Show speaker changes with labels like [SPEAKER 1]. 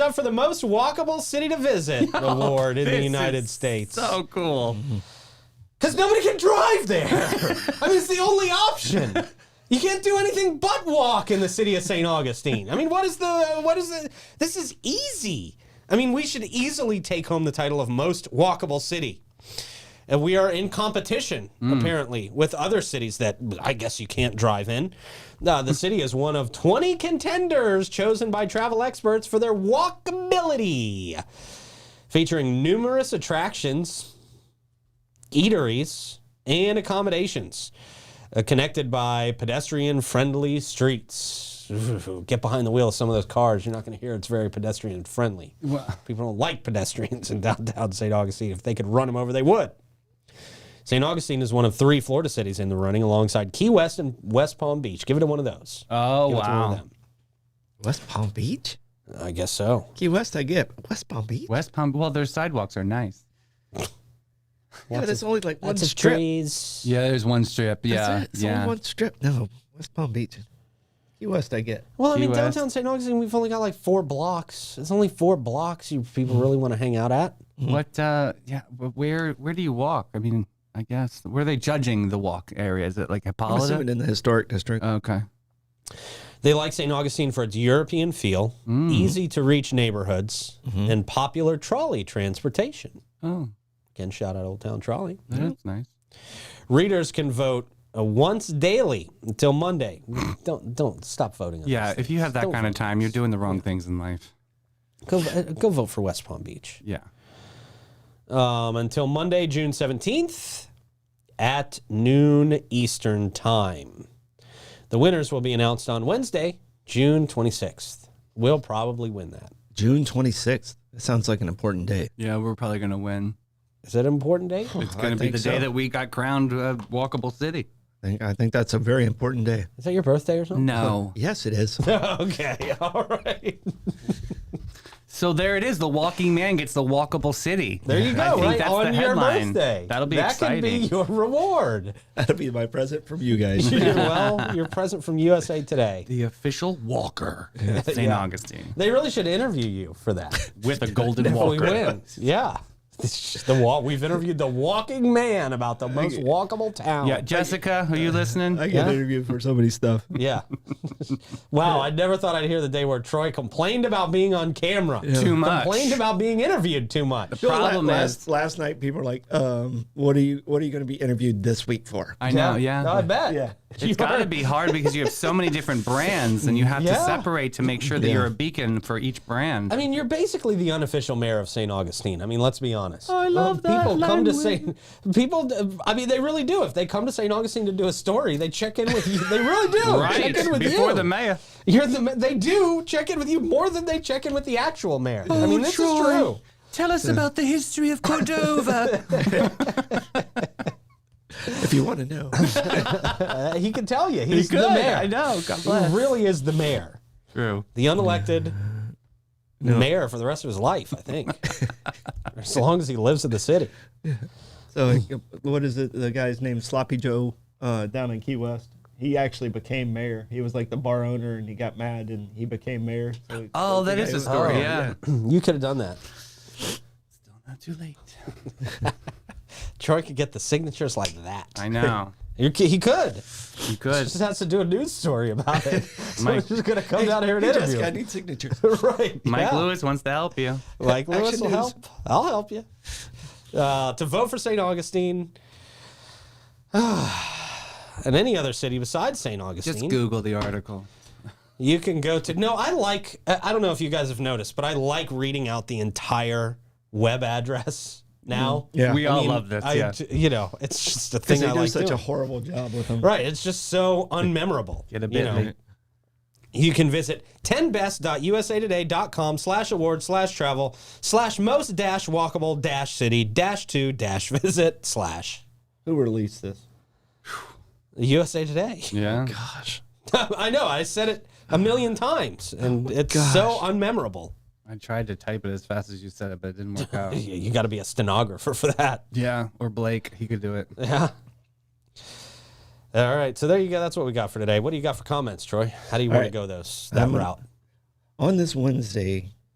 [SPEAKER 1] up for the most walkable city to visit award in the
[SPEAKER 2] Oh, This
[SPEAKER 1] United
[SPEAKER 2] is
[SPEAKER 1] States.
[SPEAKER 2] So cool.
[SPEAKER 3] Mm-hmm.
[SPEAKER 1] Because nobody can drive there. I mean, it's the only option. You can't do anything but walk in the city of St. Augustine. I mean, what is the, what is the, this is easy. I mean, we should easily take home the title of most walkable city. And we are in competition, apparently, with other cities that I guess you can't drive in. Uh, the city is one of 20 contenders chosen by travel experts for their walkability, featuring numerous attractions, eateries, and accommodations uh, connected by pedestrian friendly streets. Get behind the wheel of some of those cars. You're not going to hear it's very pedestrian friendly. People don't like pedestrians in downtown St. Augustine. If they could run them over, they would. St. Augustine is one of three Florida cities in the running alongside Key West and West Palm Beach. Give it to one of those.
[SPEAKER 2] Oh
[SPEAKER 1] Give it to one of
[SPEAKER 2] wow.
[SPEAKER 1] them.
[SPEAKER 3] West Palm Beach?
[SPEAKER 1] I guess so.
[SPEAKER 3] Key West, I get. but West Palm Beach?
[SPEAKER 2] West Palm. Well, their sidewalks are nice.
[SPEAKER 3] yeah, there's only like one
[SPEAKER 1] Lots of
[SPEAKER 3] strip.
[SPEAKER 1] trees.
[SPEAKER 2] Yeah, there's one strip.
[SPEAKER 3] That's
[SPEAKER 2] Yeah,
[SPEAKER 3] it. It's only
[SPEAKER 2] yeah.
[SPEAKER 3] one strip. No, West Palm Beach. Key West, I get.
[SPEAKER 1] Well, I
[SPEAKER 2] Key
[SPEAKER 1] mean,
[SPEAKER 2] West.
[SPEAKER 1] downtown St. Augustine, we've only got like four blocks. It's only four blocks you people
[SPEAKER 2] Hmm.
[SPEAKER 1] really want to hang out at.
[SPEAKER 2] What? Uh, yeah. wh- Where? Where do you walk? I mean, I guess where are they judging the walk area? Is it like
[SPEAKER 3] I'm assuming
[SPEAKER 2] Hippolyta?
[SPEAKER 3] in the historic district. Uh,
[SPEAKER 2] Okay.
[SPEAKER 1] They like St. Augustine for its European feel,
[SPEAKER 2] Mm.
[SPEAKER 1] easy to reach neighborhoods,
[SPEAKER 2] Mm-hmm.
[SPEAKER 1] and popular trolley transportation.
[SPEAKER 2] Oh,
[SPEAKER 1] Again, shout out Old Town Trolley.
[SPEAKER 2] that's nice.
[SPEAKER 1] Readers can vote uh, once daily until Monday. don't don't stop voting. On
[SPEAKER 2] Yeah,
[SPEAKER 1] this.
[SPEAKER 2] if you have that
[SPEAKER 1] Don't
[SPEAKER 2] kind of
[SPEAKER 1] vote.
[SPEAKER 2] time, you're doing the wrong things in life.
[SPEAKER 1] go uh, go vote for West Palm Beach
[SPEAKER 2] Yeah.
[SPEAKER 1] um, until Monday, June seventeenth, at noon Eastern time. The winners will be announced on Wednesday, June twenty sixth. We'll probably win that.
[SPEAKER 3] June 26th. That sounds like an important date.
[SPEAKER 2] Yeah, we're probably gonna win.
[SPEAKER 1] Is that an important date?
[SPEAKER 2] It's gonna be
[SPEAKER 3] think
[SPEAKER 2] the
[SPEAKER 3] so.
[SPEAKER 2] day that we got crowned uh, walkable city.
[SPEAKER 3] I think, I think that's a very important day.
[SPEAKER 1] Is that your birthday or something?
[SPEAKER 2] No.
[SPEAKER 3] Yes, it is.
[SPEAKER 1] okay, all right.
[SPEAKER 2] So there it is. The walking man gets the walkable city.
[SPEAKER 1] There you go.
[SPEAKER 2] I think
[SPEAKER 1] right
[SPEAKER 2] that's
[SPEAKER 1] on
[SPEAKER 2] the
[SPEAKER 1] your
[SPEAKER 2] headline.
[SPEAKER 1] birthday.
[SPEAKER 2] That'll be
[SPEAKER 1] that
[SPEAKER 2] exciting.
[SPEAKER 1] can be your reward.
[SPEAKER 3] That'll be my present from you guys.
[SPEAKER 1] You're well, your present from USA Today.
[SPEAKER 2] the official walker of St. Augustine
[SPEAKER 1] They really should interview you for that.
[SPEAKER 2] with a golden
[SPEAKER 1] Well, we
[SPEAKER 2] walker.
[SPEAKER 1] win. Yeah. It's just The walk. We've interviewed the walking man about the most walkable town.
[SPEAKER 2] Yeah, Jessica, are you listening?
[SPEAKER 3] I get interviewed for so many stuff.
[SPEAKER 1] Yeah. wow. I never thought I'd hear the day where Troy complained about being on camera.
[SPEAKER 2] Too much.
[SPEAKER 1] Complained about being interviewed too much.
[SPEAKER 3] Well, la-
[SPEAKER 2] Problem
[SPEAKER 3] last,
[SPEAKER 2] is-
[SPEAKER 3] last night people were like, um, "What are you? What are you going to be interviewed this week for?"
[SPEAKER 2] I know, yeah.
[SPEAKER 1] No, I bet.
[SPEAKER 3] Yeah.
[SPEAKER 2] It's got to be hard because you have so many different brands and you have to
[SPEAKER 1] Yeah.
[SPEAKER 2] separate to make sure that you're a beacon for each brand.
[SPEAKER 1] I mean, you're basically the unofficial mayor of St. Augustine. I mean, let's be honest.
[SPEAKER 2] Oh, I love that
[SPEAKER 1] People come to
[SPEAKER 2] language.
[SPEAKER 1] St. People, I mean, they really do. If they come to St. Augustine to do a story, they check in with you. They really do.
[SPEAKER 2] right?
[SPEAKER 1] Check in with
[SPEAKER 2] Before
[SPEAKER 1] you.
[SPEAKER 2] the mayor.
[SPEAKER 1] You're the. ma- They do check in with you more than they check in with the actual mayor.
[SPEAKER 2] Oh,
[SPEAKER 1] I mean, this is true.
[SPEAKER 2] Tell us about the history of Cordova.
[SPEAKER 3] If you want to know,
[SPEAKER 1] Uh, he can tell you. He's the
[SPEAKER 2] could,
[SPEAKER 1] mayor.
[SPEAKER 2] I know, God
[SPEAKER 1] He really is the mayor.
[SPEAKER 2] True.
[SPEAKER 1] The unelected mayor for the rest of his life, I think. as long as he lives in the city.
[SPEAKER 3] so like, what is it? The guy's name Sloppy Joe uh, down in Key West. He actually became mayor. He was like the bar owner, and he got mad, and he became mayor. So
[SPEAKER 2] Oh, that is a story.
[SPEAKER 1] Oh,
[SPEAKER 2] yeah.
[SPEAKER 1] You could have done that.
[SPEAKER 2] Not too late.
[SPEAKER 1] Troy could get the signatures like that.
[SPEAKER 2] I know.
[SPEAKER 1] You c- He could.
[SPEAKER 2] You could.
[SPEAKER 1] Just has to do a news story about it. Someone's
[SPEAKER 2] Mike-
[SPEAKER 1] just gonna come down here and
[SPEAKER 3] Hey, Jessica,
[SPEAKER 1] interview.
[SPEAKER 3] I
[SPEAKER 1] him.
[SPEAKER 3] need signatures.
[SPEAKER 1] right.
[SPEAKER 2] Mike
[SPEAKER 1] yeah. Oh
[SPEAKER 2] Lewis wants to help you.
[SPEAKER 1] Mike Lewis
[SPEAKER 3] Action
[SPEAKER 1] will
[SPEAKER 3] news.
[SPEAKER 1] help. I'll help you. Uh, to vote for St. Augustine and any other city besides St. Augustine,
[SPEAKER 2] Just Google the article.
[SPEAKER 1] you can go to. No, I like. I I don't know if you guys have noticed, but I like reading out the entire web address now.
[SPEAKER 3] Yeah.
[SPEAKER 2] We
[SPEAKER 1] I
[SPEAKER 2] all
[SPEAKER 1] mean,
[SPEAKER 2] love this.
[SPEAKER 1] I
[SPEAKER 2] yeah.
[SPEAKER 1] j- You know, it's just a
[SPEAKER 3] Because
[SPEAKER 1] thing
[SPEAKER 3] they
[SPEAKER 1] I
[SPEAKER 3] do
[SPEAKER 1] like
[SPEAKER 3] such a
[SPEAKER 1] doing.
[SPEAKER 3] horrible job with them.
[SPEAKER 1] right. It's just so unmemorable.
[SPEAKER 2] Get
[SPEAKER 1] you
[SPEAKER 2] a bit.
[SPEAKER 1] know. You can visit 10best.usatoday.com slash award slash travel slash most dash walkable dash city dash two dash visit slash
[SPEAKER 3] Who released this?
[SPEAKER 1] USA Today.
[SPEAKER 2] Yeah.
[SPEAKER 3] Gosh,
[SPEAKER 1] I know, I said it a million times and
[SPEAKER 2] Oh
[SPEAKER 1] it's so unmemorable.
[SPEAKER 2] I tried to type it as fast as you said it, but it didn't work out.
[SPEAKER 1] You, you got to be a stenographer for that.
[SPEAKER 2] yeah. Or Blake. He could do it.
[SPEAKER 1] Yeah. All right. So there you go. That's what we got for today. What do you got for comments, Troy? How do you want to
[SPEAKER 3] right.
[SPEAKER 1] go those that
[SPEAKER 3] I'm gonna-
[SPEAKER 1] route?
[SPEAKER 3] on this Wednesday,